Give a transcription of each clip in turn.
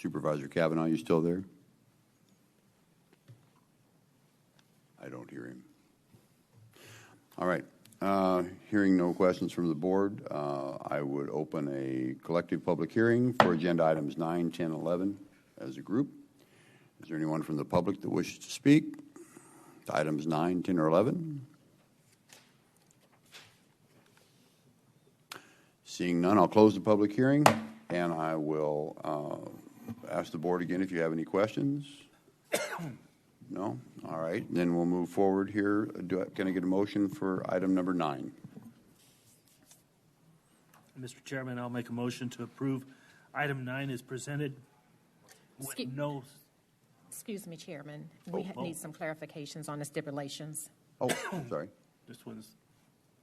Supervisor Kavanaugh, you still there? I don't hear him. All right. Uh, Hearing no questions from the board, uh, I would open a collective public hearing for agenda items 9, 10, 11 as a group. Is there anyone from the public that wishes to speak to items 9, 10, or 11? Seeing none, I'll close the public hearing, and I will uh, ask the board again if you have any questions. No? All right, then we'll move forward here. Do I- Can I get a motion for item number nine? Mr. Chairman, I'll make a motion to approve item nine is presented with Excuse- no, Excuse me, Chairman. We ha- oh. need some clarifications on the stipulations. Oh, sorry. this one's,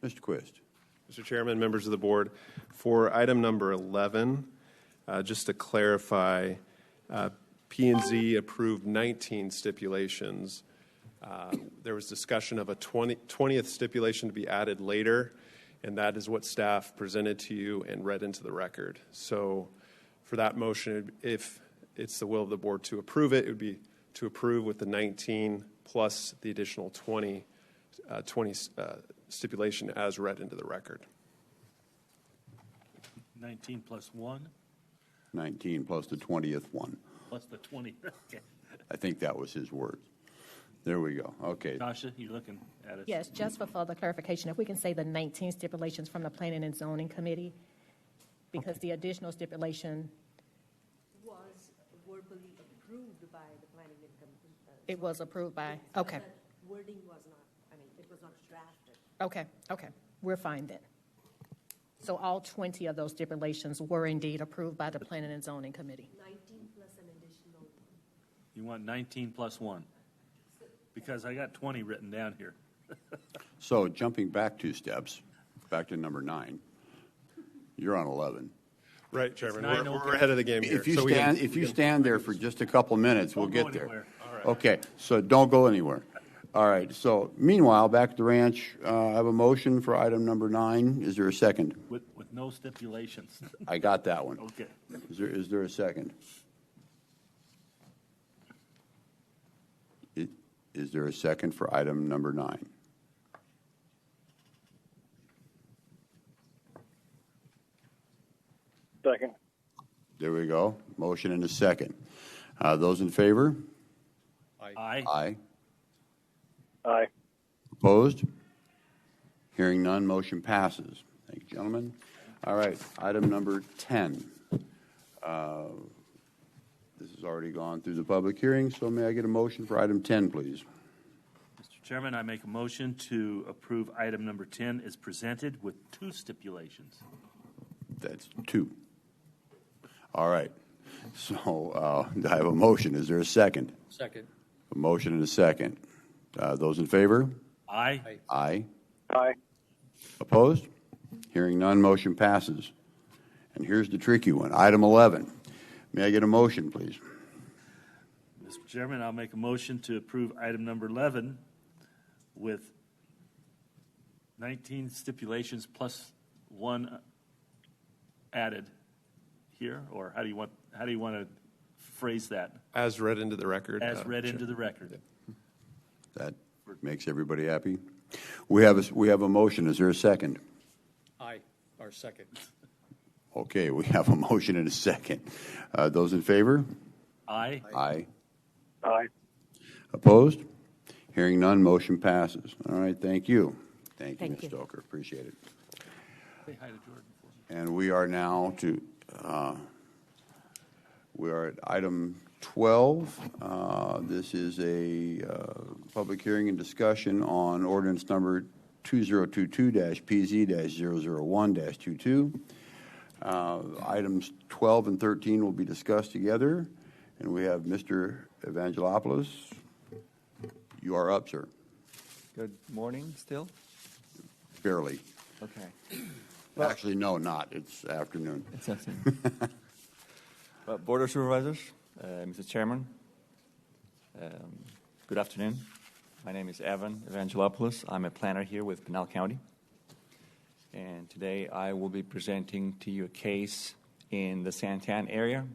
Mr. Quist? Mr. Chairman, members of the board, for item number 11, uh, just to clarify, uh, p and Z approved 19 stipulations. Uh, There was discussion of a 20 20th stipulation to be added later, and that is what staff presented to you and read into the record. So for that motion, if it's the will of the board to approve it, it would be to approve with the 19 plus the additional 20 uh, 20 uh, stipulation as read into the record. 19 plus one, 19 plus the 20th one. plus the 20. Okay. I think that was his word. There we go. Okay. Tasha, you looking at us? Yes, just for further clarification, if we can say the 19 stipulations from the Planning and Zoning Committee, because the additional stipulation, was verbally approved by the planning and com- uh, it was approved by, okay, but Wording was not, I mean, it was not drafted. okay, okay. We're fine then. So all 20 of those stipulations were indeed approved by the Planning and Zoning Committee. Nineteen plus an additional one. You want 19 plus one? Because I got 20 written down here. So jumping back two steps, back to number nine, you're on 11. Right, Chairman. nine We're, open. we're ahead of the game here. If you So we have- stand, if you stand there for just a couple minutes, we'll Don't go get there. anywhere. Okay, so don't go anywhere. All right, so meanwhile, back at the ranch, uh, I have a motion for item number nine. Is there a second? With, with no stipulations. I got that one. Okay. Is there, is there a second? I- Is there a second for item number nine? Second. There we go. Motion and a second. Uh, Those in favor? Aye. Aye. Aye. Opposed? Hearing none, motion passes. Thank you, gentlemen. All right, item number 10. Uh, This has already gone through the public hearing, so may I get a motion for item 10, please? Mr. Chairman, I make a motion to approve item number 10 is presented with two stipulations. That's two. All right. So uh, I have a motion. Is there a second? Second. A motion and a second. Uh, Those in favor? Aye. Aye. Aye. Opposed? Hearing none, motion passes. And here's the tricky one, item 11. May I get a motion, please? Mr. Chairman, I'll make a motion to approve item number 11 with 19 stipulations plus one added here, or how do you want, how do you want to phrase that? As read into the record. As uh, read Chair. into the record. That makes everybody happy. We have, a- we have a motion, is there a second? Aye, or second. Okay, we have a motion and a second. Uh, Those in favor? Aye. Aye. Aye. Opposed? Hearing none, motion passes. All right, thank you. Thank you, Thank Ms. you. Stoker, appreciate it. Say hi to Jordan for me. And we are now to, uh, we are at item 12. Uh, This is a uh, public hearing and discussion on ordinance number 2022-PZ-001-22. Uh, Items 12 and 13 will be discussed together, and we have Mr. Evangelopoulos. You are up, sir, Good morning still? barely. Okay. Actually, no, not, it's afternoon. It's nothing. Well, Board of Supervisors, uh, Mr. Chairman, um, good afternoon. My name is Evan Evangelopoulos. I'm a planner here with Pinal County. And today I will be presenting to you a case in the Santan area